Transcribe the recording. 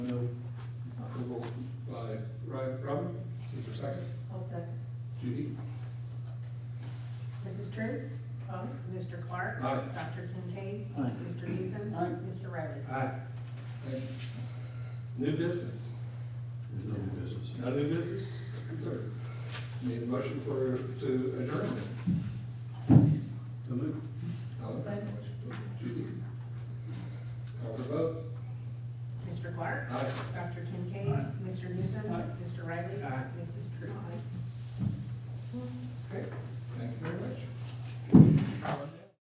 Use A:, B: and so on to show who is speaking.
A: second?
B: I'll second.
A: Judy?
C: Mrs. True?
B: Aye.
C: Mr. Clark?
A: Aye.
C: Dr. Kincaid?
D: Aye.
C: Mr. Beason?
D: Aye.
C: Mr. Riley?
A: Aye. Thank you. New business?
E: There's no new business.
A: No new business? Sir, need a motion for, to adjourn?
E: So moved.
A: I'll make a motion. Judy? Call for vote?
C: Mr. Clark?
A: Aye.
C: Dr. Kincaid? Mr. Beason? Mr. Riley?
A: Aye.
C: Mrs. True?
A: Okay, thank you very much.